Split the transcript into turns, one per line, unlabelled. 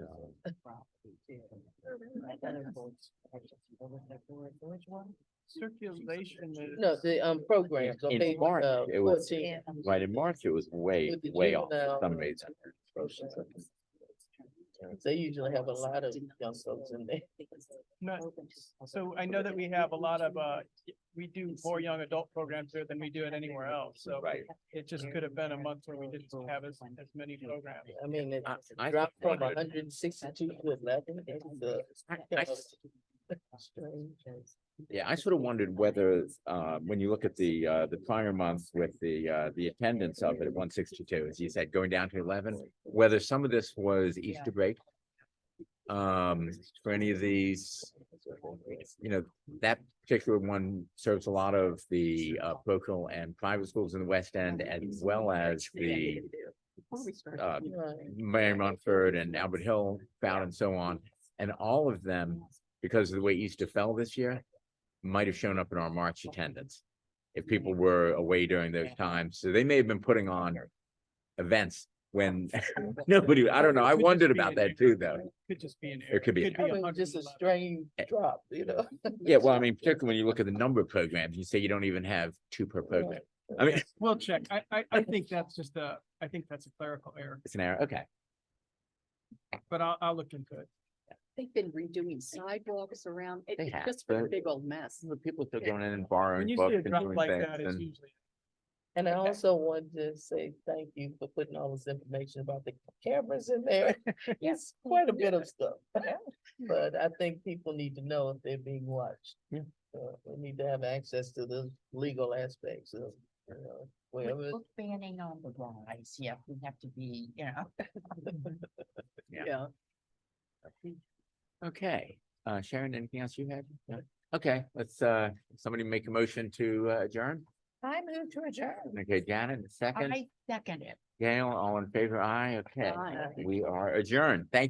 um,
Which one?
Circulation is.
No, the, um, programs on
In
page,
March,
uh,
it was-
fourteen.
Right, in March, it was way,
With the
way off for
juvenile-
some reason.
They usually have a lot of young folks in there.
No, so I know that we have a lot of, uh, we do more young adult programs there than we do it anywhere else, so.
Right.
It just could have been a month where we didn't have as, as many programs.
I mean, it
I- I
dropped
just
from
wondered-
hundred and sixty-two to eleven. It's, uh,
I s- Yeah, I sort of wondered whether, uh, when you look at the, uh, the prior month with the, uh, the attendance of it at one sixty-two, as you said, going down to eleven, whether some of this was Easter break. Um, for any of these, you know, that particular one serves a lot of the, uh, parochial and private schools in the West End as well as the uh,
right.
Mary Montford and Albert Hill found and so on. And all of them, because of the way Easter fell this year, might have shown up in our March attendance. If people were away during those times, so they may have been putting on events when nobody, I don't know, I
Could just
wondered
be
about
an
that
error.
too, though.
Could just be an
It
error.
could be an
I mean, just a
111.
strange
Eh,
drop, you know?
Yeah, well, I mean, particularly when you look at the number of programs, you say you don't even have two per program. I mean,
We'll check. I, I, I think that's just a, I think that's a clerical error,
it's an error, okay.
but I'll, I'll look into it.
They've been redoing sidewalks around, it-
They
it's
have,
just been a
but-
big old mess.
Some of the people still
Yeah.
going in and
When
borrowing
you
books
see a
and
drop
doing
like
things
that, it's
and,
usually.
And I
Okay.
also wanted to say thank you for putting all this information about the cameras in there. Yes, quite a bit of stuff. But I think people need to know if they're being watched.
Yeah.
So we need to have access to the legal aspects of, you know, wherever.
Book banning on the rise, yeah, we have to be, you know.
Yeah.
okay. Uh, Sharon, anything else you had? No? Okay, let's, uh, somebody make a motion to uh, adjourn.
I move to adjourn.
Okay, Janet, a second.
I second it.
Gail, all in favor? Aye, okay.
Fine.
We are adjourned. Thank